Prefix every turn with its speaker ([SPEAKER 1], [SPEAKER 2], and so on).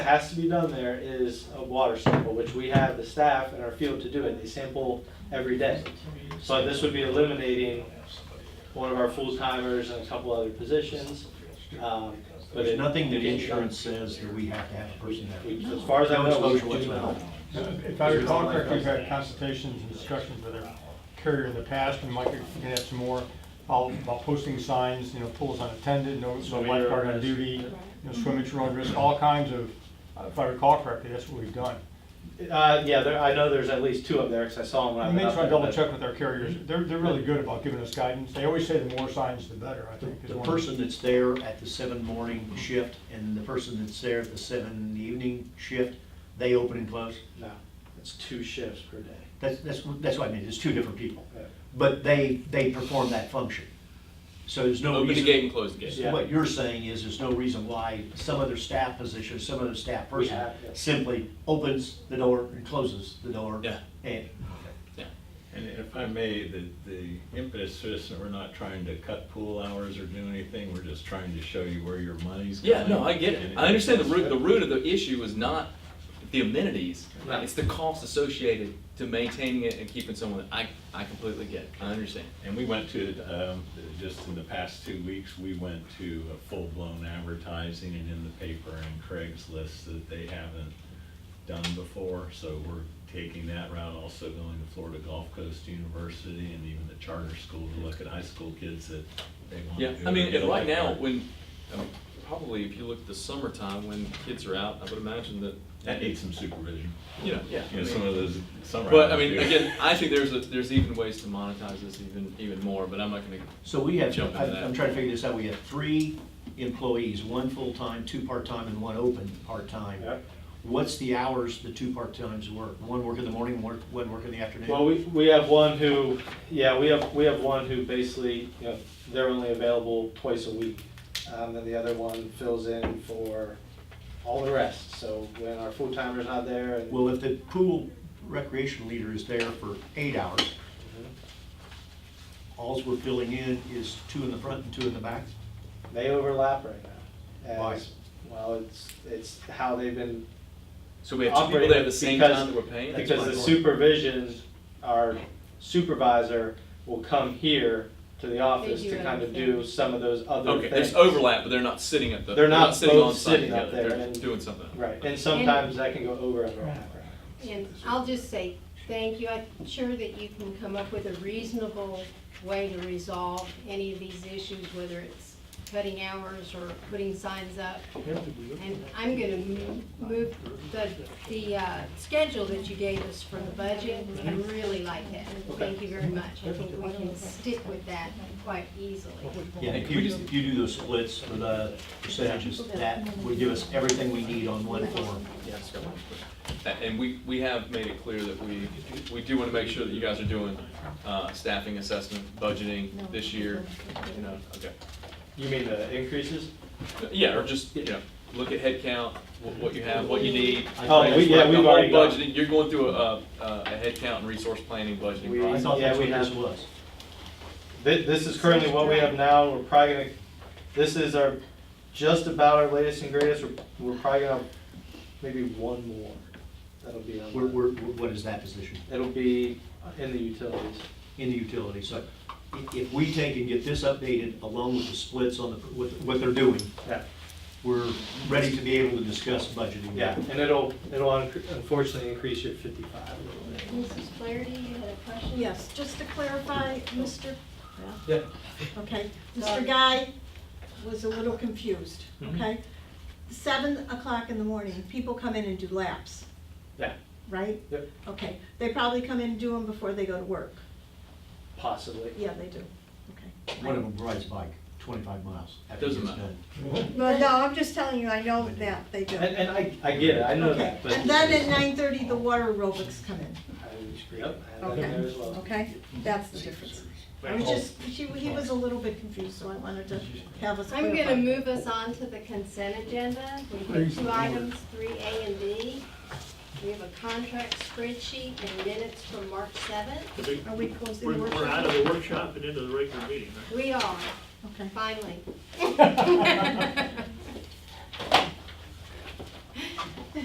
[SPEAKER 1] has to be done there is a water sample, which we have the staff in our field to do it. They sample every day. So this would be eliminating one of our full timers and a couple other positions. um, but it-
[SPEAKER 2] There's nothing that insurance says that we have to have a person that.
[SPEAKER 1] we- As far as I know, we do not.
[SPEAKER 3] Uh, If I recall correctly, we've had consultations and discussions with our carrier in the past, and Mike, you can have some more, all about posting signs, you know, pools unattended, no no lifeguard on duty, you know, swimming to your own risk, all kinds of, uh, if I recall correctly, that's what we've done.
[SPEAKER 1] Uh, yeah, there, I know there's at least two up there because I saw them when I
[SPEAKER 3] I
[SPEAKER 1] went
[SPEAKER 3] make
[SPEAKER 1] up
[SPEAKER 3] sure I
[SPEAKER 1] there.
[SPEAKER 3] double
[SPEAKER 1] but-
[SPEAKER 3] check with our carriers, they're, they're really good about giving us guidance, they always say the more signs, the better, I think. is
[SPEAKER 2] The
[SPEAKER 3] one-
[SPEAKER 2] person that's there at the seven morning shift and the person that's there at the seven evening shift, they open and close.
[SPEAKER 1] No, it's two shifts per day.
[SPEAKER 2] That's, that's, what- that's what I mean, it's two different people.
[SPEAKER 1] Yeah.
[SPEAKER 2] But they, they perform that function. So there's no
[SPEAKER 4] Open the
[SPEAKER 2] reason.
[SPEAKER 4] gate and close the gate.
[SPEAKER 1] Yeah.
[SPEAKER 2] What you're saying is, there's no reason why some other staff position, some other staff
[SPEAKER 1] We
[SPEAKER 2] person
[SPEAKER 1] have, yeah.
[SPEAKER 2] simply opens the door and closes the door.
[SPEAKER 4] Yeah.
[SPEAKER 2] And,
[SPEAKER 5] And if I may, the, the impetus for this, and we're not trying to cut pool hours or do anything, we're just trying to show you where your money's going.
[SPEAKER 4] Yeah, no, I get it. I understand the root, the root of the issue is not the amenities.
[SPEAKER 1] Right.
[SPEAKER 4] It's the cost associated to maintaining it and keeping someone, I, I completely get it. I understand.
[SPEAKER 5] And we went to, um, just in the past two weeks, we went to a full-blown advertising and in the paper and Craigslist that they haven't done before, so we're taking that route, also going to Florida Gulf Coast University and even the charter school to look at high school kids that they want
[SPEAKER 4] Yeah,
[SPEAKER 5] to.
[SPEAKER 4] I mean,
[SPEAKER 5] get a
[SPEAKER 4] and right now,
[SPEAKER 5] lifeguard.
[SPEAKER 4] when, I mean, probably if you look at the summertime, when kids are out, I would imagine that,
[SPEAKER 5] That needs some supervision.
[SPEAKER 4] you know, yeah. I
[SPEAKER 5] You know,
[SPEAKER 4] mean-
[SPEAKER 5] some of those summer.
[SPEAKER 4] But I
[SPEAKER 5] hours
[SPEAKER 4] mean,
[SPEAKER 5] do.
[SPEAKER 4] again, I think there's, a there's even ways to monetize this even, even more, but I'm not gonna,
[SPEAKER 2] so we have,
[SPEAKER 4] Jump into
[SPEAKER 2] I'm
[SPEAKER 4] that.
[SPEAKER 2] I'm trying to figure this out, we have three employees, one full-time, two part-time, and one open part-time.
[SPEAKER 1] Yep.
[SPEAKER 2] What's the hours the two part-times work? One work in the morning, one, one work in the afternoon?
[SPEAKER 1] Well, we, we have one who, yeah, we have, we have one who basically, you know, they're only available twice a week. Um, and the other one fills in for all the rest, so when our full timer's not there and.
[SPEAKER 2] Well, if the pool recreation leader is there for eight hours, alls we're filling in is two in the front and two in the back?
[SPEAKER 1] They overlap right now.
[SPEAKER 2] Why?
[SPEAKER 1] As- Well, it's, it's how they've been,
[SPEAKER 4] so we have two people there at the same
[SPEAKER 1] Because-
[SPEAKER 4] time that we're paying?
[SPEAKER 2] That's
[SPEAKER 1] because
[SPEAKER 2] my
[SPEAKER 1] the
[SPEAKER 2] point.
[SPEAKER 1] supervision, our supervisor will come here to the office
[SPEAKER 6] do
[SPEAKER 1] to
[SPEAKER 6] other
[SPEAKER 1] kind of do
[SPEAKER 6] things.
[SPEAKER 1] some of those other
[SPEAKER 4] Okay,
[SPEAKER 1] things.
[SPEAKER 4] there's overlap, but they're not sitting at the,
[SPEAKER 1] They're
[SPEAKER 4] they're
[SPEAKER 1] not
[SPEAKER 4] not sitting
[SPEAKER 1] both
[SPEAKER 4] on site
[SPEAKER 1] sitting up
[SPEAKER 4] together,
[SPEAKER 1] there
[SPEAKER 4] they're
[SPEAKER 1] and-
[SPEAKER 4] doing something. else.
[SPEAKER 1] Right, and sometimes that can go over and over.
[SPEAKER 6] And I'll just say, thank you, I'm sure that you can come up with a reasonable way to resolve any of these issues, whether it's cutting hours or putting signs up. And I'm gonna mo- move the, the, uh, schedule that you gave us for the budget, I really like that. Thank you very much, I think we can stick with that quite easily.
[SPEAKER 2] Yeah, if you, if you do those splits for the percentages, that would give us everything we need on one form.
[SPEAKER 4] Yeah, it's got one foot. A- And we, we have made it clear that we, we do want to make sure that you guys are doing uh, staffing assessment, budgeting this year, you know, okay.
[SPEAKER 1] You mean the increases?
[SPEAKER 4] Yeah, or just, you know, look at head count, what what you have, what you need.
[SPEAKER 1] Oh, we- yeah,
[SPEAKER 4] The
[SPEAKER 1] we've
[SPEAKER 4] whole
[SPEAKER 1] already got-
[SPEAKER 4] budgeting, You're going through a, a head count and resource planning budgeting
[SPEAKER 1] We-
[SPEAKER 2] I
[SPEAKER 4] process.
[SPEAKER 2] thought that's
[SPEAKER 1] Yeah,
[SPEAKER 2] what
[SPEAKER 1] we
[SPEAKER 2] this
[SPEAKER 1] have-
[SPEAKER 2] was.
[SPEAKER 1] Thi- This is currently what we have now, we're probably gonna, this is our, just about our latest and greatest, we're, we're probably gonna, maybe one more. That'll be on,
[SPEAKER 2] Where,
[SPEAKER 1] the-
[SPEAKER 2] where, what is that position?
[SPEAKER 1] it'll be in the utilities.
[SPEAKER 2] In the utility, so i- if we take and get this updated along with the splits on the, with, what they're doing,
[SPEAKER 1] Yeah,
[SPEAKER 2] we're ready to be able to discuss budgeting.
[SPEAKER 1] yeah, and it'll, it'll unc- unfortunately increase your fifty-five a little bit.
[SPEAKER 6] Mrs. Flaherty, you had a question?
[SPEAKER 7] Yes, just to clarify, Mr.,
[SPEAKER 1] Yeah.
[SPEAKER 7] okay, Mr. Guy was a little confused,
[SPEAKER 1] Mm-hmm.
[SPEAKER 7] okay? Seven o'clock in the morning, people come in and do laps,
[SPEAKER 1] Yeah,
[SPEAKER 7] right?
[SPEAKER 1] Yep.
[SPEAKER 7] Okay, they probably come in and do them before they go to work.
[SPEAKER 1] possibly.
[SPEAKER 7] Yeah, they do, okay.
[SPEAKER 2] One of them rides bike twenty-five miles. after
[SPEAKER 4] Doesn't
[SPEAKER 2] it's
[SPEAKER 4] matter.
[SPEAKER 2] done.
[SPEAKER 7] Well, no, I'm just telling you, I know that they do.
[SPEAKER 1] And, and I, I get it, I know
[SPEAKER 7] Okay,
[SPEAKER 1] that, but.
[SPEAKER 7] and then at nine-thirty, the water aerobics come in,
[SPEAKER 1] I- Yep, I have that in there as well.
[SPEAKER 7] okay, okay? That's the difference. I
[SPEAKER 1] Oh.
[SPEAKER 7] was just, she, he was a little bit confused, so I wanted to have us
[SPEAKER 6] I'm
[SPEAKER 7] clarify.
[SPEAKER 6] gonna move us on to the consent agenda. We have two items, three A and B. We have a contract spreadsheet and minutes from March seventh.
[SPEAKER 8] The big-
[SPEAKER 7] Are we closing
[SPEAKER 8] We're,
[SPEAKER 7] the
[SPEAKER 8] we're out of the workshop and into the regular meeting, right?
[SPEAKER 6] We are,
[SPEAKER 7] Okay.
[SPEAKER 6] finally.